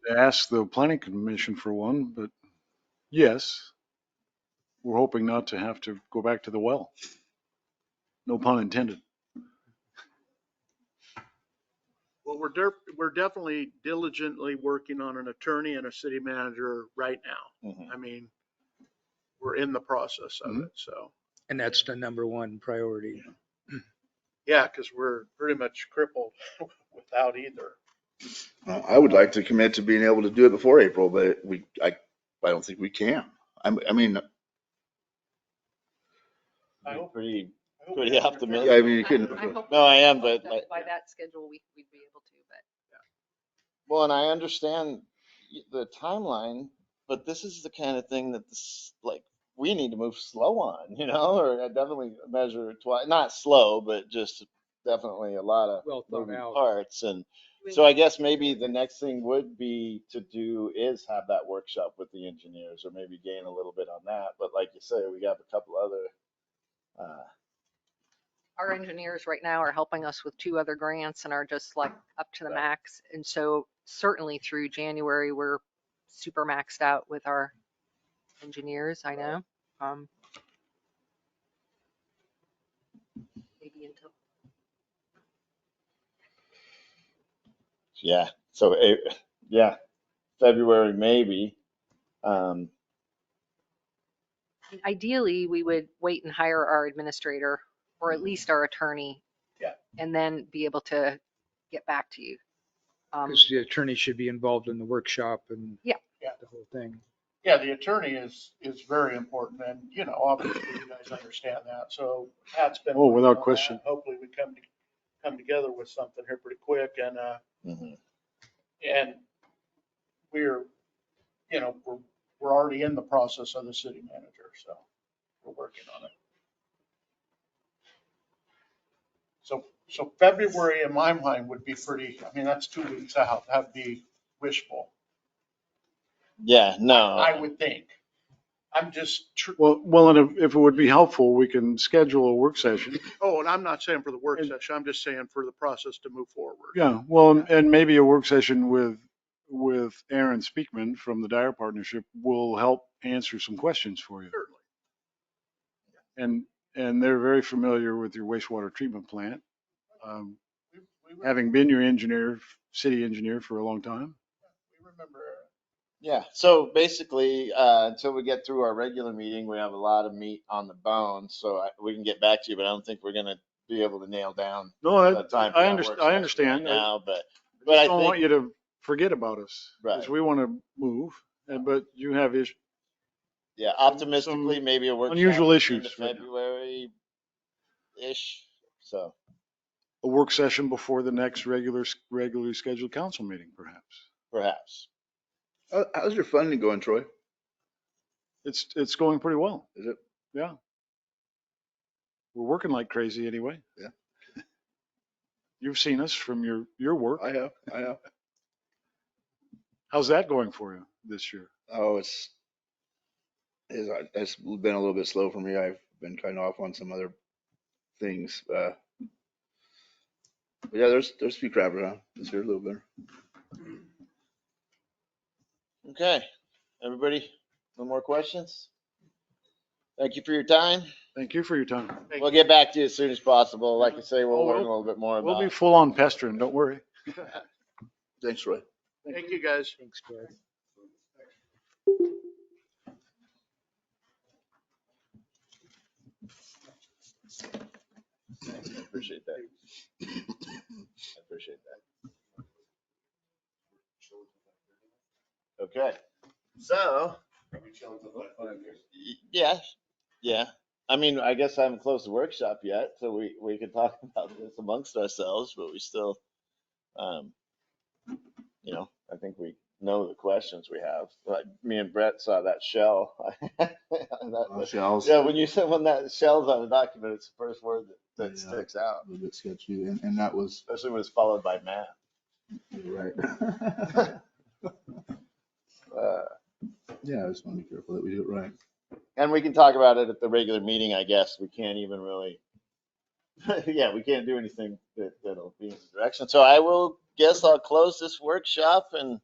ask the planning commission for one, but yes, we're hoping not to have to go back to the well. No pun intended. Well, we're, der- we're definitely diligently working on an attorney and a city manager right now. Mm-hmm. I mean, we're in the process of it, so. And that's the number one priority. Yeah, because we're pretty much crippled without either. Uh, I would like to commit to being able to do it before April, but we, I, I don't think we can. I'm, I mean, I hope- Pretty, I hope Pretty we have an optimistic. attorney. I mean, you couldn't. I hope- No, I am, but hope that I- By that schedule, we, we'd be able to, but. well, and I understand y- the timeline, but this is the kind of thing that this, like, we need to move slow on, you know, or I definitely measure twice, not slow, but just definitely a lot of Well thought moving out. parts. And so I guess maybe the next thing would be to do is have that workshop with the engineers or maybe gain a little bit on that. But like you say, we have a couple other, uh, Our engineers right now are helping us with two other grants and are just like up to the Yeah. max. And so certainly through January, we're super maxed out with our engineers, I know. Um, Maybe until Yeah, so it, yeah, February maybe. Um, ideally, we would wait and hire our administrator or at least our attorney. Yeah. And then be able to get back to you. Um, Because the attorney should be involved in the workshop and. Yeah. Yeah. The whole thing. Yeah, the attorney is, is very important and, you know, obviously you guys understand that. So Pat's been. Oh, without working on that. question. Hopefully we come, to- come together with something here pretty quick and, uh, mhm. And we're, you know, we're, we're already in the process of the city manager, so we're working on it. So, so February in my mind would be pretty, I mean, that's two weeks out. That'd be wishful, yeah, I no, would think. I'm just, tr- Well, well, and if, if it would be helpful, we can schedule a work session. oh, and I'm not saying for the work session, I'm just saying for the process to move forward. Yeah, well, and- and maybe a work session with, with Aaron Speakman from the Dyer Partnership will help answer some questions for you. Certainly. And, and they're very familiar with your wastewater treatment plant, um, We we re- having been your engineer, city engineer for a long time. we remember, yeah. So basically, uh, until we get through our regular meeting, we have a lot of meat on the bone, so I, we can get back to you, but I don't think we're gonna be able to nail down No, I, the time. for I that underst- work I session understand. right I Now, but, but I just don't want think, you to forget about us. 'cause Right. we want to move, and- but you have issues. yeah, optimistically, maybe a workshop. unusual into issues right now. February-ish, so, a work session before the next regular, regularly scheduled council meeting, perhaps. perhaps. How- How's your funding going, Troy? It's, it's going pretty well. Is it? Yeah. We're working like crazy anyway. Yeah. You've seen us from your, your work. I have, I have. How's that going for you this year? Oh, it's, it's, it's been a little bit slow for me. I've been kind of off on some other things. Uh, but yeah, there's, there's a few crap around this year a little bit. Okay, everybody, no more questions? Thank you for your time. Thank you for your time. Thank We'll get back to you as soon as possible. Like I say, Oh, we'll learn a we'll- little bit more We'll about be it. full on pestering, don't worry. Thanks, Troy. thank you guys. Thanks, Brad. I Appreciate that. I Appreciate that. Okay, so. Y- Yeah, yeah. I mean, I guess I haven't closed the workshop yet, so we, we could talk about this amongst ourselves, but we still, um, you know, I think we know the questions we have. Like, me and Brett saw that shell. That- Shells. Yeah, when you said when that shell's on a document, it's the first word that, that Yeah. sticks out, little bit sketchy, and, and that was especially when it's followed by math. right. Uh, yeah, I just want to be careful that we do it right. and we can talk about it at the regular meeting, I guess. We can't even really, yeah, we can't do anything that, that'll be in the direction. So I will guess I'll close this workshop and